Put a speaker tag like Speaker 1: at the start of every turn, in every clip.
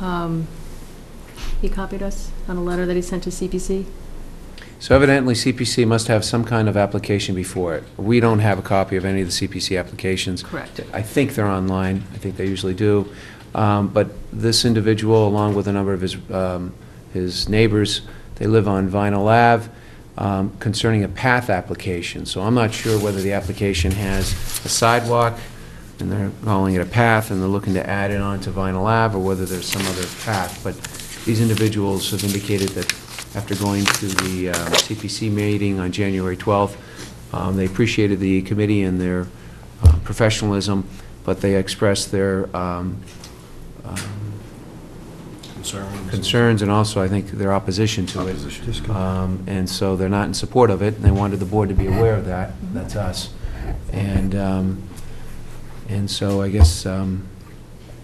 Speaker 1: um, he copied us on a letter that he sent to CPC.
Speaker 2: So evidently CPC must have some kind of application before it. We don't have a copy of any of the CPC applications.
Speaker 1: Correct.
Speaker 2: I think they're online, I think they usually do. Um, But this individual, along with a number of his, um, his neighbors, they live on Vinyl Ave um, concerning a path application. So I'm not sure whether the application has a sidewalk, and they're calling it a path, and they're looking to add it on to Vinyl Ave, or whether there's some other path. But these individuals have indicated that after going to the um, CPC meeting on January 12th, um, they appreciated the committee and their uh, professionalism, but they expressed their um, um,
Speaker 3: Concerns.
Speaker 2: concerns and also, I think, their opposition to it. Um, And so they're not in support of it, and they wanted the board to be aware of that.
Speaker 4: Mm-hmm.
Speaker 2: That's us. And, um, and so I guess, um,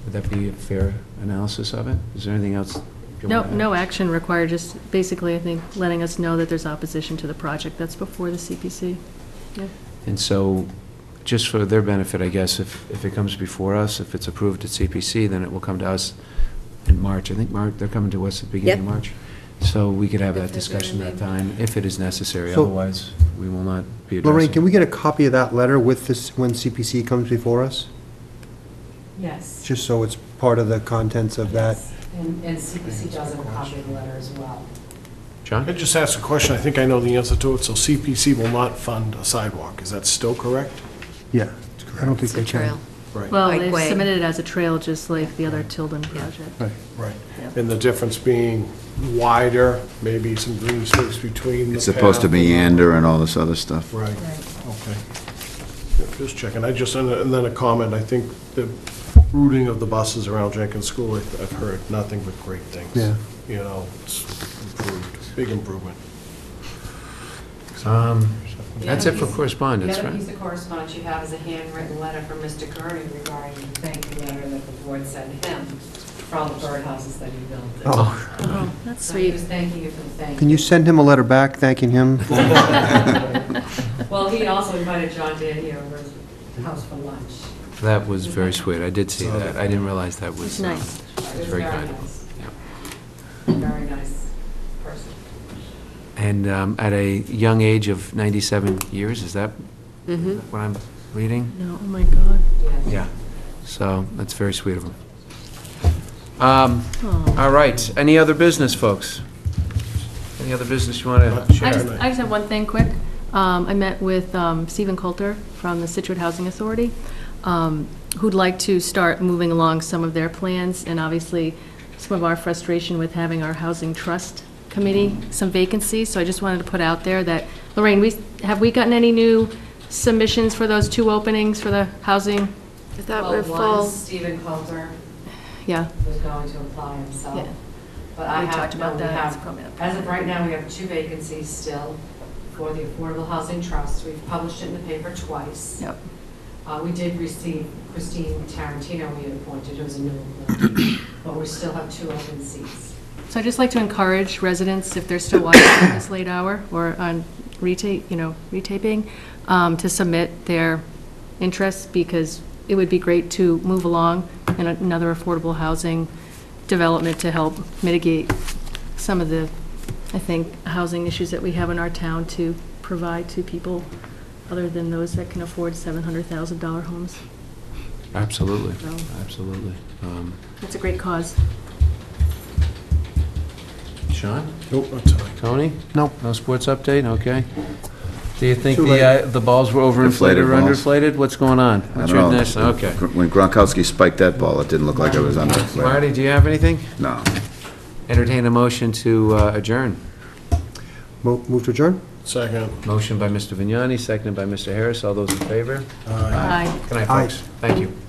Speaker 2: would that be a fair analysis of it? Is there anything else? you
Speaker 1: No,
Speaker 2: wanna add?
Speaker 1: no action required, just basically, I think, letting us know that there's opposition to the project. That's before the CPC. Yeah.
Speaker 2: And so, just for their benefit, I guess, if, if it comes before us, if it's approved at CPC, then it will come to us in March. I think March, they're coming to us at the beginning of
Speaker 5: Yep.
Speaker 2: March. So we could have
Speaker 1: If
Speaker 2: that
Speaker 1: there's
Speaker 2: discussion that
Speaker 1: anything-
Speaker 2: time, if it is necessary.
Speaker 4: So-
Speaker 2: Otherwise, we will not be addressing.
Speaker 4: Lorraine, can we get a copy of that letter with this, when CPC comes before us?
Speaker 6: Yes.
Speaker 4: Just so it's part of the contents of that.
Speaker 6: Yes. And and CPC does have a copy of the letter as well.
Speaker 3: I
Speaker 2: John?
Speaker 3: just asked a question, I think I know the answer to it, so CPC will not fund a sidewalk, is that still correct?
Speaker 4: Yeah. I don't think
Speaker 5: It's a
Speaker 4: they
Speaker 5: trail.
Speaker 4: can.
Speaker 3: Right.
Speaker 1: Well,
Speaker 5: Like
Speaker 1: they
Speaker 5: way.
Speaker 1: submitted it as a trail, just like the other Tilden project.
Speaker 4: Right.
Speaker 3: Right.
Speaker 1: Yeah.
Speaker 3: And the difference being wider, maybe some green space between the
Speaker 7: It's supposed to
Speaker 3: path and-
Speaker 7: meander and all this other stuff.
Speaker 3: Right, okay. Yeah, Just checking, I just, and and then a comment, I think the routing of the buses around Jenkins School, I've I've heard nothing but great things.
Speaker 4: Yeah.
Speaker 3: You know, it's improved, big improvement.
Speaker 2: Um,
Speaker 6: The
Speaker 2: That's it
Speaker 6: other
Speaker 2: for
Speaker 6: piece-
Speaker 2: correspondence,
Speaker 6: The other
Speaker 2: right?
Speaker 6: piece of correspondence you have is a handwritten letter from Mr. Gurney regarding the thank you letter that the board sent him for all the birdhouses that he built.
Speaker 4: Oh,
Speaker 1: Oh, that's
Speaker 6: So he
Speaker 1: sweet.
Speaker 6: was thanking you for the thank you.
Speaker 4: Can you send him a letter back thanking him?
Speaker 6: Well, he also invited John Dan here over to the house for lunch.
Speaker 2: That was very sweet. I did see
Speaker 3: So-
Speaker 2: that. I didn't realize that was.
Speaker 1: It's
Speaker 2: uh,
Speaker 1: nice.
Speaker 6: It
Speaker 2: It was
Speaker 6: was
Speaker 2: very
Speaker 6: very
Speaker 2: kind.
Speaker 6: nice,
Speaker 2: yeah.
Speaker 6: very nice person.
Speaker 2: And um, at a young age of 97 years, is that
Speaker 6: Mm-hmm.
Speaker 1: Mm-hmm.
Speaker 5: Mhm.
Speaker 2: what I'm reading?
Speaker 1: No, oh my God.
Speaker 6: Yes.
Speaker 2: Yeah, so that's very sweet of him. Um,
Speaker 1: Aw.
Speaker 2: All right, any other business, folks? Any other business you want
Speaker 3: Not
Speaker 2: to?
Speaker 1: I
Speaker 3: sure.
Speaker 1: just, I just have one thing quick. Um, I met with um, Stephen Coulter from the Situate Housing Authority, um, who'd like to start moving along some of their plans, and obviously, some of our frustration with having our Housing Trust Committee, some vacancies, so I just wanted to put out there that, Lorraine, we, have we gotten any new submissions for those two openings for the housing?
Speaker 5: I thought we're
Speaker 6: Well, one,
Speaker 5: full.
Speaker 6: Stephen Coulter
Speaker 1: Yeah,
Speaker 6: was going to apply himself.
Speaker 1: Yeah.
Speaker 6: But I
Speaker 1: We talked
Speaker 6: have, no,
Speaker 1: about
Speaker 6: we
Speaker 1: that. It's
Speaker 6: have,
Speaker 1: probably not-
Speaker 6: as of right now, we have two vacancies still for the Affordable Housing Trust. We've published it in the paper twice.
Speaker 1: yep.
Speaker 6: Uh, We did receive Christine Tarantino, we had appointed, who's a new employee, but we still have two open seats.
Speaker 1: So I'd just like to encourage residents, if they're still watching at this late hour or on retape, you know, retaping, um, to submit their interests because it would be great to move along in another affordable housing development to help mitigate some of the, I think, housing issues that we have in our town to provide to people other than those that can afford $700,000 homes.
Speaker 2: Absolutely,
Speaker 1: No.
Speaker 2: absolutely. Um,
Speaker 1: That's a great cause.
Speaker 2: Sean,
Speaker 3: Nope, not tonight.
Speaker 2: Tony,
Speaker 4: No.
Speaker 2: no sports update, okay. Do you think
Speaker 4: Too
Speaker 2: the,
Speaker 4: late.
Speaker 2: uh, the balls were overinflated
Speaker 7: Deflated
Speaker 2: or
Speaker 7: balls.
Speaker 2: underinflated? What's going on?
Speaker 7: I
Speaker 2: What's your
Speaker 7: don't know.
Speaker 2: next- Okay.
Speaker 7: When Gronkowski spiked that ball, it didn't look like it was under.
Speaker 2: Marty, do you have anything?
Speaker 7: No.
Speaker 2: Entertain a motion to uh, adjourn.
Speaker 4: Mo- Move to adjourn?
Speaker 3: Second.
Speaker 2: Motion by Mr. Vignani, seconded by Mr. Harris. All those in favor?
Speaker 3: Aye.
Speaker 1: Aye.
Speaker 2: Good night,
Speaker 4: Aye.
Speaker 2: folks. Thank you.